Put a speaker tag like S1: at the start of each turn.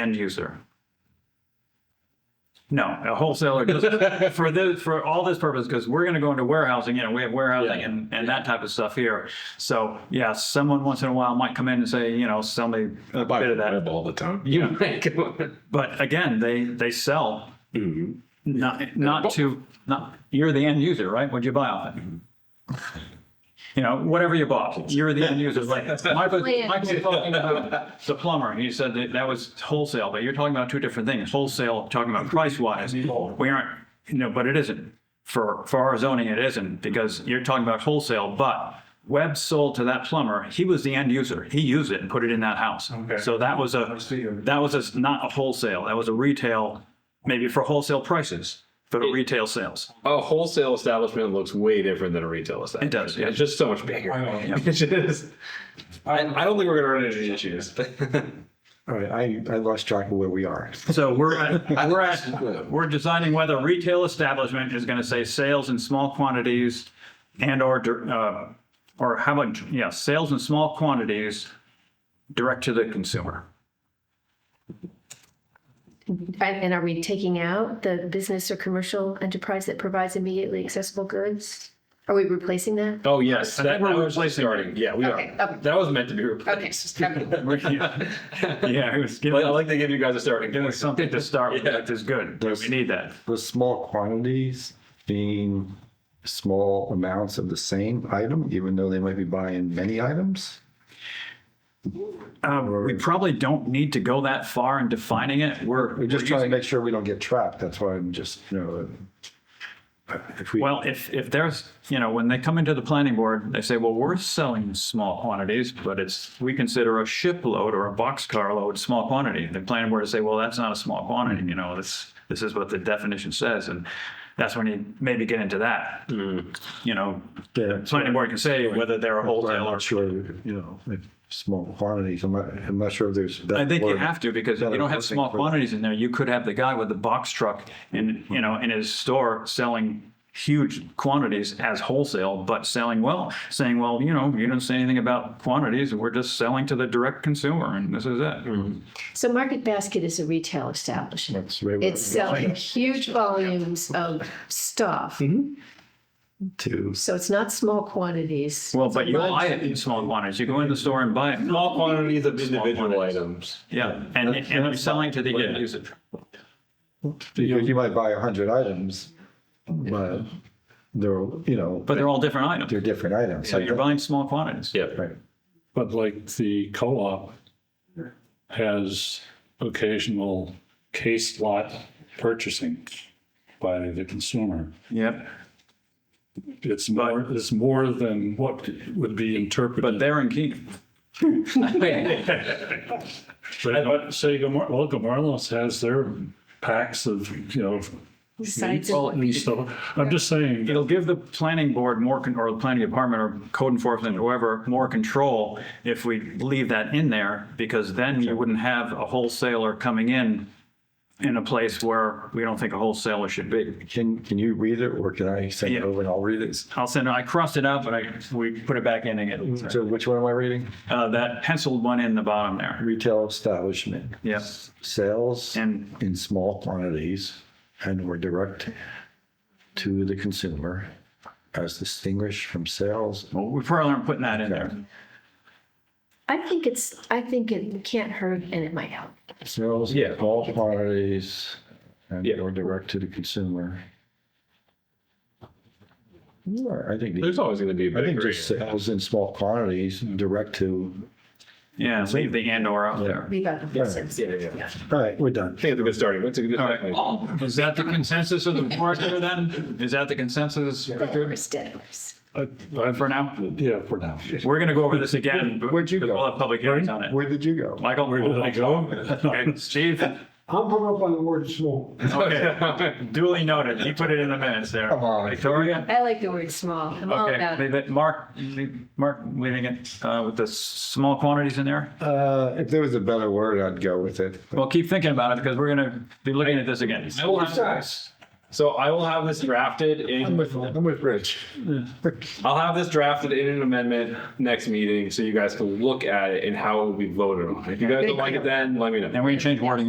S1: end user. No, a wholesaler goes, for this, for all this purpose, because we're gonna go into warehousing, you know, we have warehousing
S2: Yeah.
S1: and, and that type of stuff here. So, yeah, someone once in a while might come in and say, you know, sell me a
S2: Buy
S1: bit of that.
S2: web all the time.
S1: Yeah.
S2: mm-hmm.
S1: But again, they, they sell, not, not to, not, you're the end user, right? What'd you buy off it?
S3: Mm-hmm.
S1: You know, whatever you bought, you're the end user. Like, Michael,
S4: Land.
S1: Michael was talking about the plumber. He said that that was wholesale, but you're talking about two different things. Wholesale, talking about price wise. We aren't, you know, but it isn't. For, for our zoning, it isn't because you're talking about wholesale, but Webb sold to that plumber. He was the end user. He used it and put it in that house.
S3: Okay.
S1: So that was a,
S3: see.
S1: that was a, not a wholesale. That was a retail, maybe for wholesale prices, for the retail sales.
S2: A wholesale establishment looks way different than a retail establishment.
S1: does, yeah.
S2: It's just so much bigger.
S3: I know.
S2: It's just- I, I don't think we're going to run into these issues.
S5: All right, I, I lost track of where we are.
S1: So we're at, we're at, we're designing whether retail establishment is going to say sales in small quantities and or, dir- uh, or how about, yeah, sales in small quantities direct to the consumer.
S4: And and are we taking out the business or commercial enterprise that provides immediately accessible goods? Are we replacing that?
S2: oh, yes.
S1: I think
S2: that-
S1: we're
S2: that was
S1: replacing-
S2: starting. Yeah, we
S4: Okay,
S2: are.
S4: okay.
S2: That was meant to be replaced.
S1: Yeah, it was
S2: But I
S1: giving,
S2: like to give you guys a starting
S1: giving
S2: point.
S1: us something to start with, that is good. We need that.
S5: The small quantities being small amounts of the same item, even though they might be buying many items?
S1: Um, we probably don't need to go that far in defining it. We're.
S5: We're just
S1: we're
S5: trying to make sure we don't get trapped. That's why I'm just, you know, if we,
S1: Well, if, if there's, you know, when they come into the planning board, they say, well, we're selling small quantities, but it's, we consider a shipload or a boxcar load small quantity. The planning board will say, well, that's not a small quantity, you know, this, this is what the definition says. And that's when you maybe get into that. You know, the
S5: Mm. Yeah.
S1: planning board can say whether they're a
S5: I'm
S1: wholesale or.
S5: not sure, you know, if small quantities, I'm not, I'm not sure if there's.
S1: I think you have to because if you
S5: better
S1: don't have
S5: wording
S1: small
S5: for-
S1: quantities in there, you could have the guy with the box truck in, you know, in his store selling huge quantities as wholesale, but selling well, saying, well, you know, you didn't say anything about quantities. We're just selling to the direct consumer and this is
S5: Mm-hmm.
S1: it.
S4: So Market Basket is a retail establishment.
S5: That's the way we're
S4: It's selling huge volumes of stuff.
S5: To,
S4: So it's not small quantities.
S1: Well, but you buy it in small quantities. You go in the store and buy it.
S2: Small quantities of individual
S1: quantities.
S2: items.
S1: Yeah. And, and you're selling to the end user.
S5: because you might buy a hundred items, but they're, you know,
S1: But they're all different items.
S5: they're different items.
S1: So you're buying small quantities.
S2: Yeah.
S5: Right.
S3: But like the co-op has occasional case lot purchasing by the consumer.
S1: Yep.
S3: It's more, it's more than what would be
S1: But
S3: interpreted.
S1: they're in Keene.
S3: But but say, Gomar- well, Gomarlos has their packs of, you know,
S4: Besides-
S3: meat stuff. I'm just saying.
S1: It'll give the planning board more, con- or the planning department or code enforcement, whoever, more control if we leave that in there, because then you wouldn't have a wholesaler coming in in a place where we don't think a wholesaler should be.
S5: Can, can you read it or can I send
S1: Yeah.
S5: it over and I'll read it?
S1: I'll send, I crossed it out, but I, we put it back in again.
S5: So which one am I reading?
S1: Uh, that penciled one in the bottom there.
S5: Retail establishment,
S1: Yep.
S5: sales
S1: And
S5: in small quantities and or direct to the consumer as distinguished from sales.
S1: well, we probably aren't putting that in there.
S4: I think it's, I think it can't hurt and it might help.
S5: Sales in
S2: Yeah.
S5: small quantities and
S2: Yeah.
S5: or direct to the consumer. Yeah, I think,
S2: There's always going to be a
S5: I think
S2: bakery.
S5: just sales in small quantities, direct to,
S1: Yeah, leave the and or out there.
S4: Leave out the business.
S2: Yeah, yeah, yeah.
S5: all right, we're done.
S2: I think it's a good starting. It's a good starting. point.
S1: Is that the consensus of the board here then? Is that the consensus Richard,
S4: Developers, developers.
S1: for now?
S3: Yeah, for now.
S1: We're going to go over this again. but
S5: Where'd you go?
S1: We'll have public hearings on it.
S5: Where did you go?
S1: Michael? Where
S3: did I go?
S1: Steve,
S6: I'm hung up on the word small.
S1: okay, duly noted. You put it in the minutes there.
S5: Come on.
S1: Victoria?
S4: I like the word small. I'm all
S1: Okay,
S4: about it.
S1: leave it. Mark, leave- Mark, leaving it uh, with the s- small quantities in there?
S5: Uh, if there was a better word, I'd go with it.
S1: Well, keep thinking about it because we're going to be looking at this again.
S2: I will have, so I will have this drafted
S5: I'm
S2: in,
S5: with, I'm with Rich.
S2: I'll have this drafted in an amendment next meeting so you guys can look at it and how it will be voted on. If you guys don't like it then, let me know.
S1: And we're going to change wording